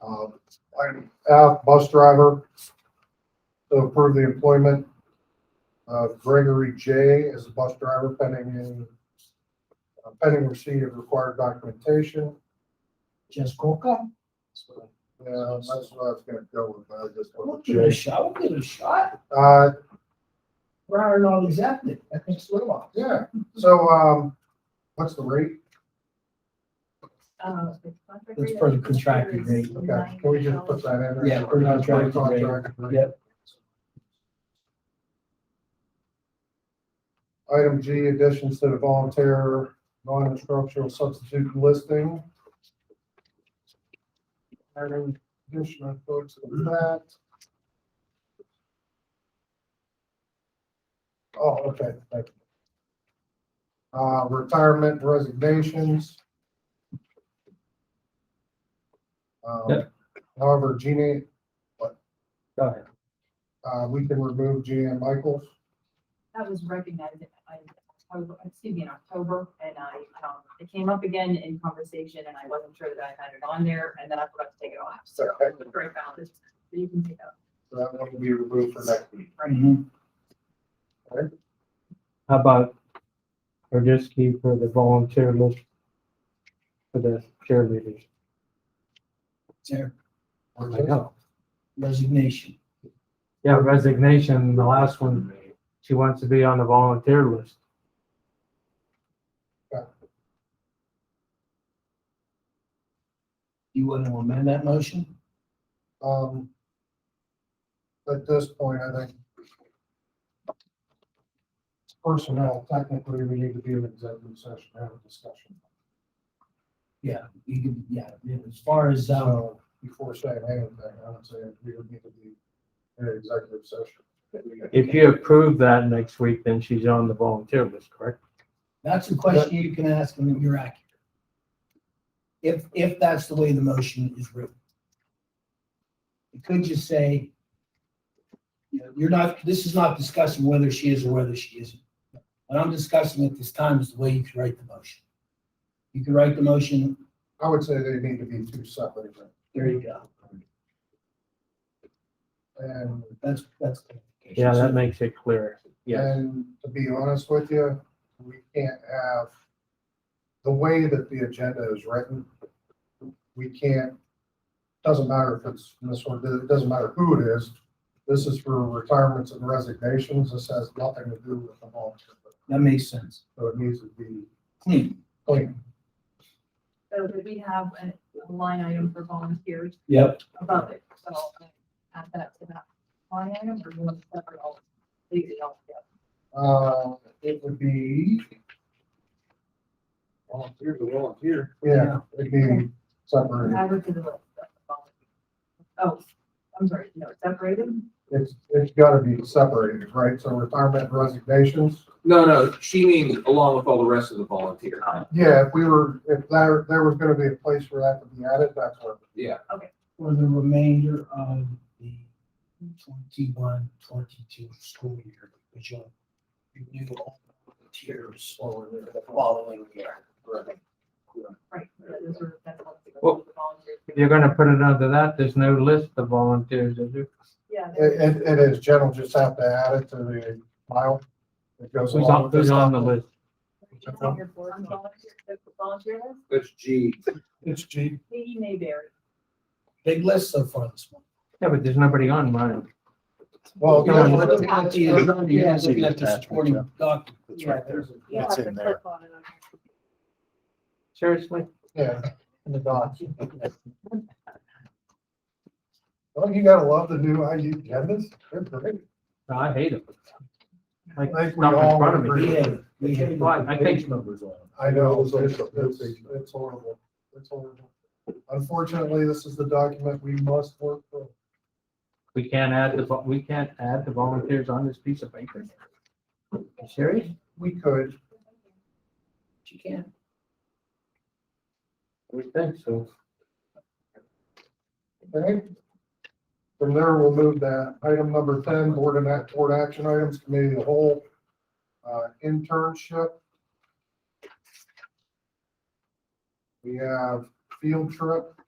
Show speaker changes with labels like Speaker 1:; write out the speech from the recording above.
Speaker 1: Um, Item F, bus driver, to approve the employment of Gregory J. as a bus driver pending in, uh, pending receipt of required documentation.
Speaker 2: Just coca?
Speaker 1: Yeah, that's what I was gonna go with, I just
Speaker 2: We'll
Speaker 1: want
Speaker 2: give it a
Speaker 1: to check.
Speaker 2: shot, we'll give it a shot.
Speaker 1: Uh,
Speaker 2: We're hiring all these ethnic, ethnic swim off.
Speaker 1: yeah, so, um, what's the rate?
Speaker 3: Uh, the contract
Speaker 2: That's
Speaker 3: rate, I
Speaker 2: for the
Speaker 3: think,
Speaker 2: contracted
Speaker 3: is
Speaker 2: rate.
Speaker 1: Okay, can we just put that in? there?
Speaker 2: Yeah, for contracted rate.
Speaker 1: Contracted rate.
Speaker 2: Yep.
Speaker 1: Item G, additions to the volunteer non-instructional substitute listing. Item additional folks to that. Oh, okay, thank you. Uh, retirement resignations. Um,
Speaker 2: Yep.
Speaker 1: However, Jeannie,
Speaker 2: Go ahead.
Speaker 1: uh, we can remove Jeannie and Michaels.
Speaker 3: That was recognized in, I, October- excuse me, in October, and I, um, it came up again in conversation, and I wasn't sure that I had it on there, and then I forgot to take it off, so. I
Speaker 1: Okay.
Speaker 3: found it, so you can take that.
Speaker 1: So that one will be removed for next week.
Speaker 2: Mhm.
Speaker 1: Alright.
Speaker 4: How about Rogiski for the volunteer list for the cheerleaders?
Speaker 2: There,
Speaker 4: I know.
Speaker 2: resignation.
Speaker 4: Yeah, resignation, the last one, she wants to be on the volunteer list.
Speaker 2: You want to amend that motion?
Speaker 1: Um, at this point, I think personnel, technically, we need to be in executive session, to have a discussion.
Speaker 2: Yeah, you can, yeah, as far as, um,
Speaker 1: So before saying anything, I would say we would need to be in an executive session.
Speaker 4: If you approve that next week, then she's on the volunteer list, correct?
Speaker 2: That's a question you can ask and you're accurate. If, if that's the way the motion is written. It could just say, you know, you're not, this is not discussing whether she is or whether she isn't. What I'm discussing at this time is the way you could write the motion. You could write the motion,
Speaker 1: I would say they need to be two separate, events.
Speaker 2: there you go.
Speaker 1: and,
Speaker 2: That's, that's. clarification.
Speaker 4: Yeah, that makes it clear. Yeah,
Speaker 1: and to be honest with you, we can't have, the way that the agenda is written, we can't, doesn't matter if it's this one, it doesn't matter who it is, this is for retirements and resignations, this has nothing to do with the volunteer,
Speaker 2: That makes sense.
Speaker 1: so it needs to be
Speaker 2: Clean.
Speaker 1: clean.
Speaker 3: So that we have a line item for volunteers
Speaker 2: Yep.
Speaker 3: above it, so I'll add that to that line item, or you want to separate all, leave it all together.
Speaker 1: Uh, it would be,
Speaker 5: Volunteer's a volunteer.
Speaker 1: yeah, it'd be separated,
Speaker 3: Add it to the list. of volunteers. Oh, I'm sorry, no, separated?
Speaker 1: it's, it's gotta be separated, right, so retirement and resignations,
Speaker 5: No, no, she means along with all the rest of the volunteer.
Speaker 1: Yeah, if we were, if there, there was gonna be a place for that to be added, that's where.
Speaker 5: Yeah,
Speaker 2: For the remainder of the 21-22 school year, which will be new volunteers for the following year.
Speaker 3: Right. that is where- that's what the-
Speaker 4: Well,
Speaker 3: the volunteers-
Speaker 4: if you're gonna put it under that, there's no list of volunteers, is there?
Speaker 3: Yeah. there
Speaker 1: It, it, it is, Jen will just have to add it to the file. It goes
Speaker 4: Who's
Speaker 1: along
Speaker 4: on,
Speaker 1: with
Speaker 4: who's
Speaker 1: this.
Speaker 4: on the list?
Speaker 3: is a volunteer for- on volunteer- the Volunteer list,
Speaker 5: that's G.
Speaker 1: It's G.
Speaker 3: he may vary.
Speaker 2: Big list so far this month.
Speaker 4: Yeah, but there's nobody on mine.
Speaker 1: Well,
Speaker 2: You
Speaker 1: no,
Speaker 2: know,
Speaker 1: we're
Speaker 2: looking
Speaker 1: looking
Speaker 2: at
Speaker 1: at
Speaker 2: the-
Speaker 1: the-
Speaker 2: yeah, looking at the supporting doc.
Speaker 3: Yeah,
Speaker 1: there's a-
Speaker 3: You'll have to click on it on here.
Speaker 4: Seriously?
Speaker 1: yeah, in the docs. Well, you gotta love the new IU agendas, they're great.
Speaker 4: I hate them. Like,
Speaker 1: I think we
Speaker 4: not in
Speaker 1: all
Speaker 4: front of
Speaker 1: agree.
Speaker 4: me.
Speaker 2: We have, we have.
Speaker 4: Well, I think-
Speaker 2: numbers on.
Speaker 1: I know, it's, it's, it's horrible, it's horrible. Unfortunately, this is the document we must work for.
Speaker 4: We can't add the, vo- we can't add the volunteers on this piece of paper? You serious?
Speaker 1: We could,
Speaker 2: She can.
Speaker 4: We think so.
Speaker 1: Okay. From there, we'll move that item number ten, board and act, board action items, committee of the whole, uh, internship. We have field trip,